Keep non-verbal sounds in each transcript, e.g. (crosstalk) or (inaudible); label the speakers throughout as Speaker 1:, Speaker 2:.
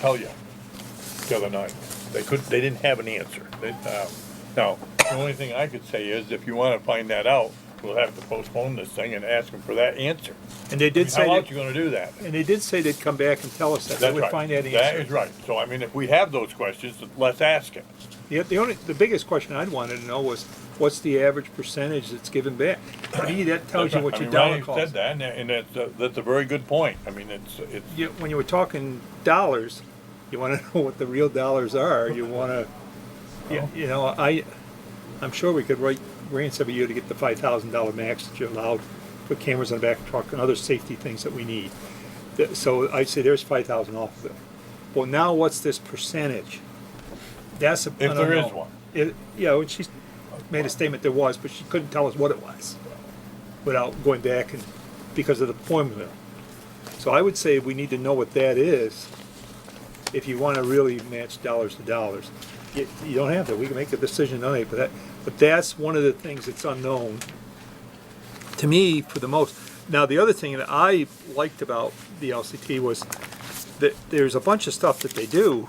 Speaker 1: tell you Oh, the other night. They could, they didn't have an answer. They, uh, now, the only thing I could say is if you wanna find that out, we'll have to postpone this thing and ask them for that answer.
Speaker 2: And they
Speaker 1: I
Speaker 2: did
Speaker 1: mean,
Speaker 2: say,
Speaker 1: How else
Speaker 2: that-
Speaker 1: you gonna do that?
Speaker 2: and they did say they'd come back and tell us that, they
Speaker 1: That's
Speaker 2: would
Speaker 1: right.
Speaker 2: find that
Speaker 1: That
Speaker 2: answer.
Speaker 1: is right. So I mean, if we have those questions, let's ask it.
Speaker 2: The, the only, the biggest question I'd wanted to know was, what's the average percentage that's given back? To me, that tells you what
Speaker 1: I
Speaker 2: your
Speaker 1: mean,
Speaker 2: dollar
Speaker 1: Ronnie
Speaker 2: cost.
Speaker 1: Said that, and, and that's, a- that's a very good point. I mean, it's, it's,
Speaker 2: You, when you were talking dollars, you wanna (laughs) know what the real dollars are, you wanna, you, you know, I, I'm sure we could write grants every year to get the five thousand dollar max that you're allowed, put cameras on the back of the truck and other safety things that we need. Th- So I'd say there's five thousand off of it. Well, now what's this percentage? That's a.
Speaker 1: If
Speaker 2: I don't
Speaker 1: there is
Speaker 2: know.
Speaker 1: one.
Speaker 2: It, yeah, and she's made a statement there was, but she couldn't tell us what it was without going back and, because of the formula. So I would say we need to know what that is if you want to really match dollars to dollars. You, you don't have to, we can make a decision tonight, but that, but that's one of the things that's unknown to me for the most. Now, the other thing that I liked about the LCT was that there's a bunch of stuff that they do,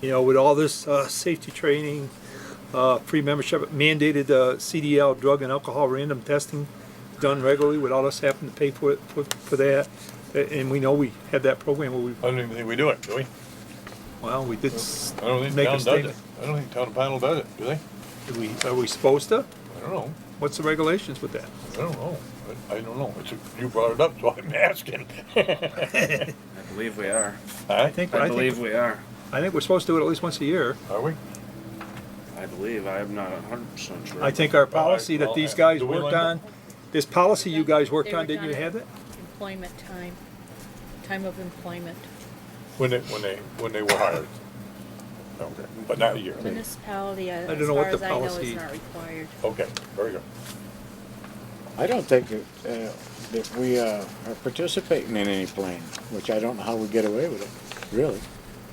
Speaker 2: you know, with all this, uh, safety training, uh, free membership, mandated, uh, CDL, drug and alcohol random testing done regularly, without us having to pay for it, for, for that. A- And we know we have that program where we
Speaker 1: I don't even think we do it, do we?
Speaker 2: well, we did s-
Speaker 1: I don't think
Speaker 2: make a
Speaker 1: town does it.
Speaker 2: statement.
Speaker 1: I don't think town panel does it, do they?
Speaker 2: Do we, are we supposed to?
Speaker 1: I don't know.
Speaker 2: What's the regulations with that?
Speaker 1: I don't know. I- I don't know. It's a, you brought it up, so I'm (laughs) asking. (laughs)
Speaker 3: I believe we are.
Speaker 1: I
Speaker 3: I believe we are.
Speaker 2: I think we're supposed to do it at least once a year.
Speaker 1: Are we?
Speaker 3: I believe. I'm not hundred percent sure.
Speaker 2: I think our
Speaker 1: Well, I-
Speaker 2: policy that
Speaker 1: well,
Speaker 2: these
Speaker 1: I-
Speaker 2: guys
Speaker 1: do we
Speaker 2: worked
Speaker 1: like it?
Speaker 2: on, this policy you guys worked
Speaker 4: They
Speaker 2: on,
Speaker 4: were
Speaker 2: didn't you
Speaker 4: done.
Speaker 2: have it?
Speaker 4: Employment time, time of employment,
Speaker 1: When they, when they, when they were hired. Okay, but not a year.
Speaker 4: municipality, uh,
Speaker 2: don't
Speaker 4: as
Speaker 2: know
Speaker 4: far
Speaker 2: what the
Speaker 4: as I know, is
Speaker 2: policy-
Speaker 4: not required.
Speaker 1: Okay, very good.
Speaker 5: I don't think that, uh, that we uh, are participating in any plan, which I don't know how we get away with it, really.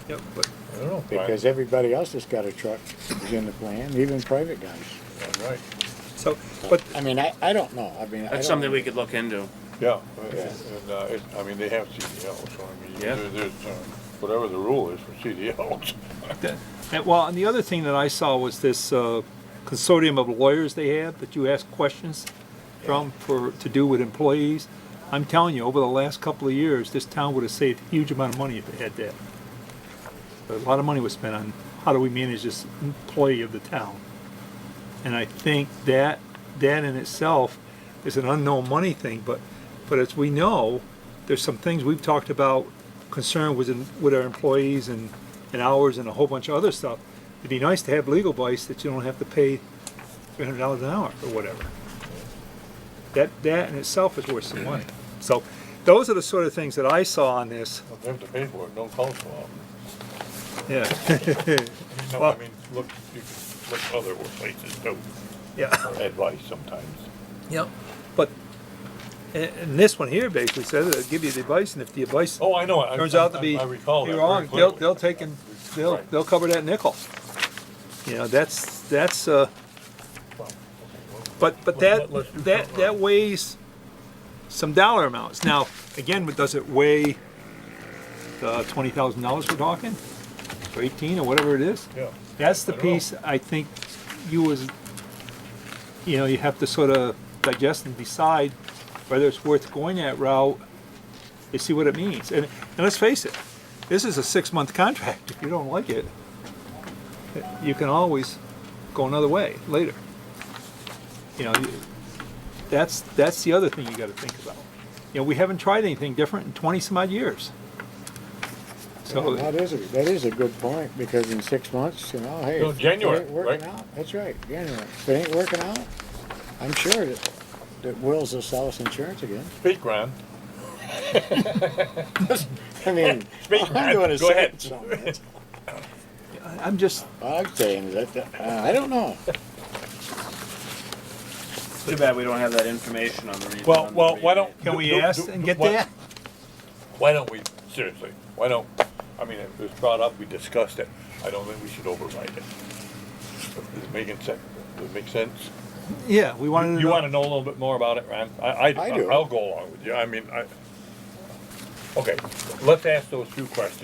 Speaker 2: Yep, but
Speaker 1: I don't know.
Speaker 5: Because everybody else that's got a truck is in the plan, even private guys.
Speaker 1: All Right,
Speaker 2: so, but
Speaker 5: I mean, I, I don't know, I mean. I
Speaker 3: That's
Speaker 5: don't-
Speaker 3: something we could look into.
Speaker 1: yeah. And, uh, it, I mean, they have CDLs, so I mean,
Speaker 3: Yeah.
Speaker 1: there- there's, uh, whatever the rule is for CDLs.
Speaker 2: that- that- well, and the other thing that I saw was this uh, consortium of lawyers they have that you ask questions from for to do with employees. I'm telling you, over the last couple of years, this town would have saved a huge amount of money if it had that. A lot of money was spent on how do we manage this employee of the town. And I think that that in itself is an unknown money thing, but but as we know, there's some things we've talked about concern with with our employees and, and hours and a whole bunch of other stuff. It'd be nice to have legal advice that you don't have to pay three hundred dollars an hour or whatever. That that in itself is worth some money. So those are the sort of things that I saw on this.
Speaker 1: (laughs) They have to pay for it, don't cost them.
Speaker 2: Yeah.
Speaker 1: No, I
Speaker 2: Well-
Speaker 1: mean, look, you can look other places (laughs) too,
Speaker 2: (laughs) Yeah.
Speaker 1: for advice sometimes.
Speaker 2: Yep. But, and, and this one here basically says, they'll give you the advice, and if the advice
Speaker 1: Oh, I know. I-
Speaker 2: turns
Speaker 1: I-
Speaker 2: out to
Speaker 1: I-
Speaker 2: be,
Speaker 1: I recall that
Speaker 2: you're
Speaker 1: very
Speaker 2: wrong, they'll,
Speaker 1: clearly.
Speaker 2: they'll take and, they'll,
Speaker 1: Right.
Speaker 2: they'll cover that nickel. You know, that's, that's, uh, but, but
Speaker 1: Let-
Speaker 2: that,
Speaker 1: let- let's do
Speaker 2: that,
Speaker 1: something.
Speaker 2: that weighs some dollar amounts. Now, again, but does it weigh the twenty thousand dollars we're talking? Or eighteen, or whatever it is?
Speaker 1: Yeah.
Speaker 2: That's the
Speaker 1: I don't know.
Speaker 2: piece I think you as, you know, you have to sort of digest and decide whether it's worth going that route to see what it means. And, and let's face it, this is a six-month contract. If you don't like it, you can always go another way later. You know, you- that's, that's the other thing you gotta think about. You know, we haven't tried anything different in twenty-some-odd years. So.
Speaker 5: That is, a- that is a good point, because in six months, you know, hey.
Speaker 1: No,
Speaker 5: if it
Speaker 1: January,
Speaker 5: ain't working
Speaker 1: right?
Speaker 5: out, That's right, January. If it ain't working out, I'm sure that, that Will's will sell us insurance again. (laughs)
Speaker 1: Speak, Ron.
Speaker 5: I
Speaker 1: (laughs)
Speaker 5: mean,
Speaker 1: Speak,
Speaker 5: I'm doing
Speaker 1: Ron.
Speaker 5: a
Speaker 1: Go ahead.
Speaker 5: sentence on that.
Speaker 2: I'm just.
Speaker 5: All I'm saying is that, uh, I don't know.
Speaker 3: Too bad we don't have that information on the. re-
Speaker 1: Well,
Speaker 3: on the
Speaker 1: well, why
Speaker 3: rebate.
Speaker 1: don't?
Speaker 2: Can we
Speaker 1: do- do-
Speaker 2: ask
Speaker 1: do-
Speaker 2: and get
Speaker 1: why-
Speaker 2: that?
Speaker 1: (laughs) Why don't we, seriously, why don't, I mean, it was brought up, we discussed it. I don't think we should override it. Does it making sense? Does it make sense?
Speaker 2: Yeah, we wanted to
Speaker 1: You
Speaker 2: know.
Speaker 1: wanna know a little bit more about it, Ron? I, I,
Speaker 5: I do.
Speaker 1: I'll go along with you. I mean, I, okay, let's ask those two questions.